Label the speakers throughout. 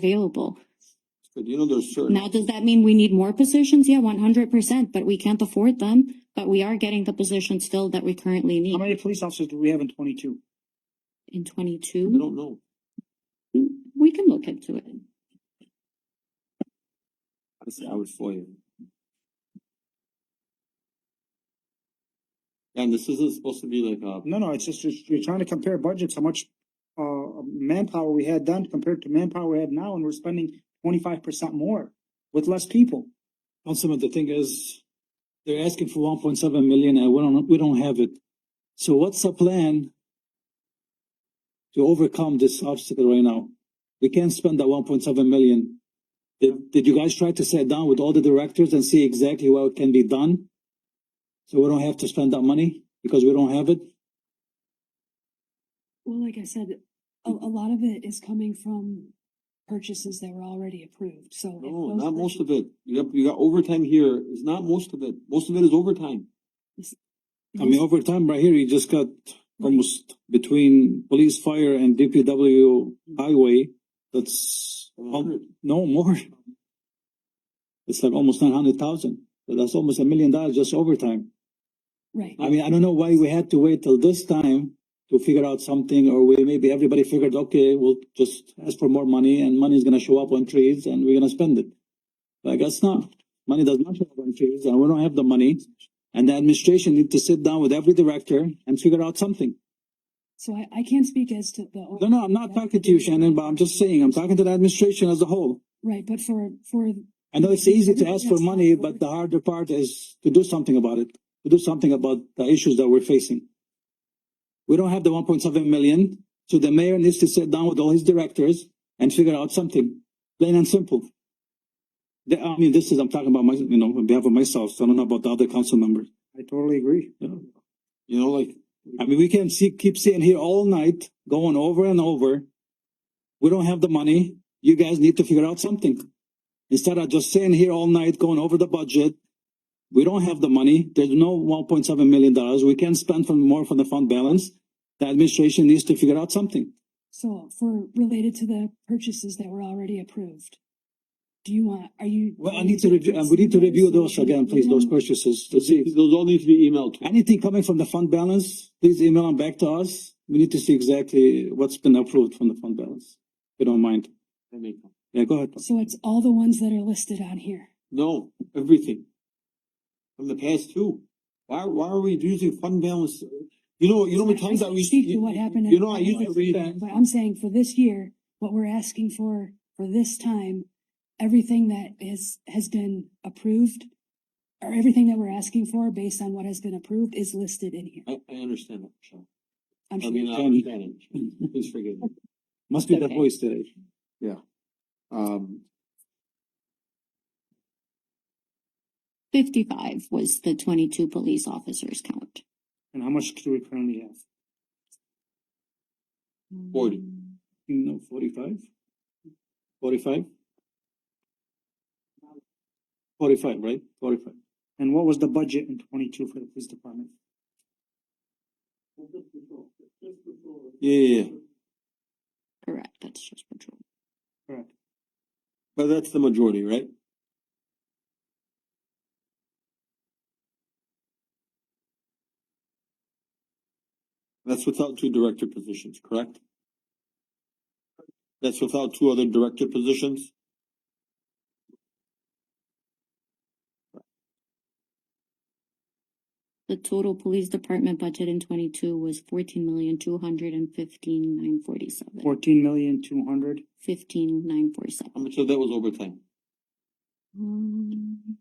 Speaker 1: available.
Speaker 2: But you know, there's certain,
Speaker 1: Now, does that mean we need more positions? Yeah, one hundred percent, but we can't afford them, but we are getting the positions still that we currently
Speaker 3: How
Speaker 1: need
Speaker 3: many police officers do we have in twenty-two?
Speaker 1: in
Speaker 2: I
Speaker 1: twenty-two.
Speaker 2: don't know.
Speaker 1: We can look into it.
Speaker 2: I say I would FOIA. And this isn't supposed to be like a,
Speaker 3: No, no, it's just, it's- you're trying to compare budgets, how much, uh, manpower we had then compared to manpower we have now, and we're spending twenty-five percent more with less people.
Speaker 4: Councilman, the thing is, they're asking for one point seven million and we don't, we don't have it. So what's the plan to overcome this obstacle right now? We can't spend that one point seven million. Did, did you guys try to sit down with all the directors and see exactly what can be done? So we don't have to spend that money because we don't have it?
Speaker 5: Well, like I said, a,
Speaker 4: Mm.
Speaker 5: a lot of it is coming from purchases that were already approved, so. if
Speaker 4: Oh,
Speaker 2: no,
Speaker 5: those
Speaker 2: not most
Speaker 5: purchases-
Speaker 2: of it. You got, you got overtime here. It's not most of it. Most of it is overtime.
Speaker 4: I mean, over time, right here, you just got almost between police, fire and DPW highway. That's al- No more. It's like almost nine hundred thousand. That's almost a million dollars just overtime.
Speaker 5: Right,
Speaker 4: I mean, I don't know why we had to wait till this time to figure out something, or we maybe everybody figured, okay, we'll just ask for more money and money is gonna show up on trees and we're gonna spend it. But I guess not. Money does not show up on trees and we don't have the money. And the administration need to sit down with every director and figure out something.
Speaker 5: so I, I can't speak as to the.
Speaker 4: No, no, I'm not talking to you, Shannon, but I'm just saying, I'm talking to the administration as a whole.
Speaker 5: Right, but for, for,
Speaker 4: I know it's easy to ask for money, but the harder part is to do something about it, to do something about the issues that we're facing. We don't have the one point seven million, so the mayor needs to sit down with all his directors and figure out something, plain and simple. The- I mean, this is, I'm talking about my, you know, on behalf of myself, so I don't know about the other council members.
Speaker 3: I totally agree.
Speaker 4: you know.
Speaker 2: You know, like,
Speaker 4: I mean, we can see, keep sitting here all night, going over and over. We don't have the money. You guys need to figure out something. Instead of just sitting here all night, going over the budget. We don't have the money. There's no one point seven million dollars. We can spend from more from the fund balance. The administration needs to figure out something.
Speaker 5: so for, related to the purchases that were already approved. Do you want, are you?
Speaker 4: Well, I need to review, uh, we need to review those again, please, those purchases to see.
Speaker 2: those all need to be emailed to.
Speaker 4: Anything coming from the fund balance, please email them back to us. We need to see exactly what's been approved from the fund balance. If you don't mind.
Speaker 2: I make them.
Speaker 4: Yeah, go ahead.
Speaker 5: So it's all the ones that are listed on here.
Speaker 2: No, everything. From the past two. Why, why are we using fund balance? You know, you know, the times that we.
Speaker 5: Speak to what happened in-
Speaker 2: You know, I used to read.
Speaker 5: But I'm saying for this year, what we're asking for, for this time, everything that is, has been approved. Or everything that we're asking for based on what has been approved is listed in here.
Speaker 2: I, I understand that, Michelle.
Speaker 5: I'm
Speaker 2: I
Speaker 5: sure.
Speaker 2: mean, I understand it. Please forgive me.
Speaker 4: Must be the
Speaker 1: Okay.
Speaker 4: voice today.
Speaker 2: Um,
Speaker 1: Fifty-five was the twenty-two police officers count.
Speaker 3: And how much do we currently have?
Speaker 2: Forty.
Speaker 4: You know, forty-five? Forty-five? Forty-five, right? Forty-five.
Speaker 3: And what was the budget in twenty-two for the police department?
Speaker 2: yeah, yeah, yeah.
Speaker 1: Correct, that's just patrol.
Speaker 3: Correct.
Speaker 2: But that's the majority, right? That's without two director positions, correct? That's without two other director positions?
Speaker 1: The total police department budget in twenty-two was fourteen million, two hundred and fifteen, nine forty-seven.
Speaker 3: Fourteen million, two hundred.
Speaker 1: Fifteen, nine
Speaker 2: How
Speaker 1: forty-seven.
Speaker 2: much of that was overtime?
Speaker 1: Um,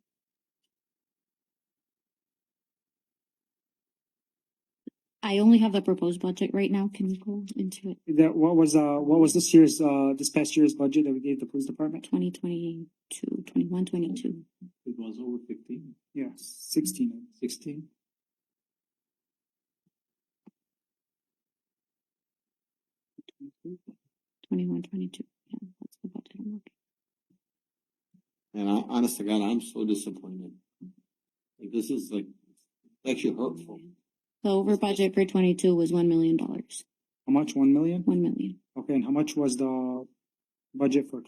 Speaker 1: I only have the proposed budget right now. Can you go into it?
Speaker 3: That, what was, uh, what was this year's, uh, this past year's budget that we gave the police department?
Speaker 1: 2022, 21, 22.
Speaker 4: It was over fifteen,
Speaker 3: Yeah, sixteen.
Speaker 4: sixteen?
Speaker 1: Twenty-one, twenty-two, yeah, that's the budget I'm looking.
Speaker 2: And I, honest to God, I'm so disappointed. Like, this is like, actually hurtful.
Speaker 1: The over budget for twenty-two was one million dollars,
Speaker 3: How much? One million?
Speaker 1: one million.
Speaker 3: Okay, and how much was the budget for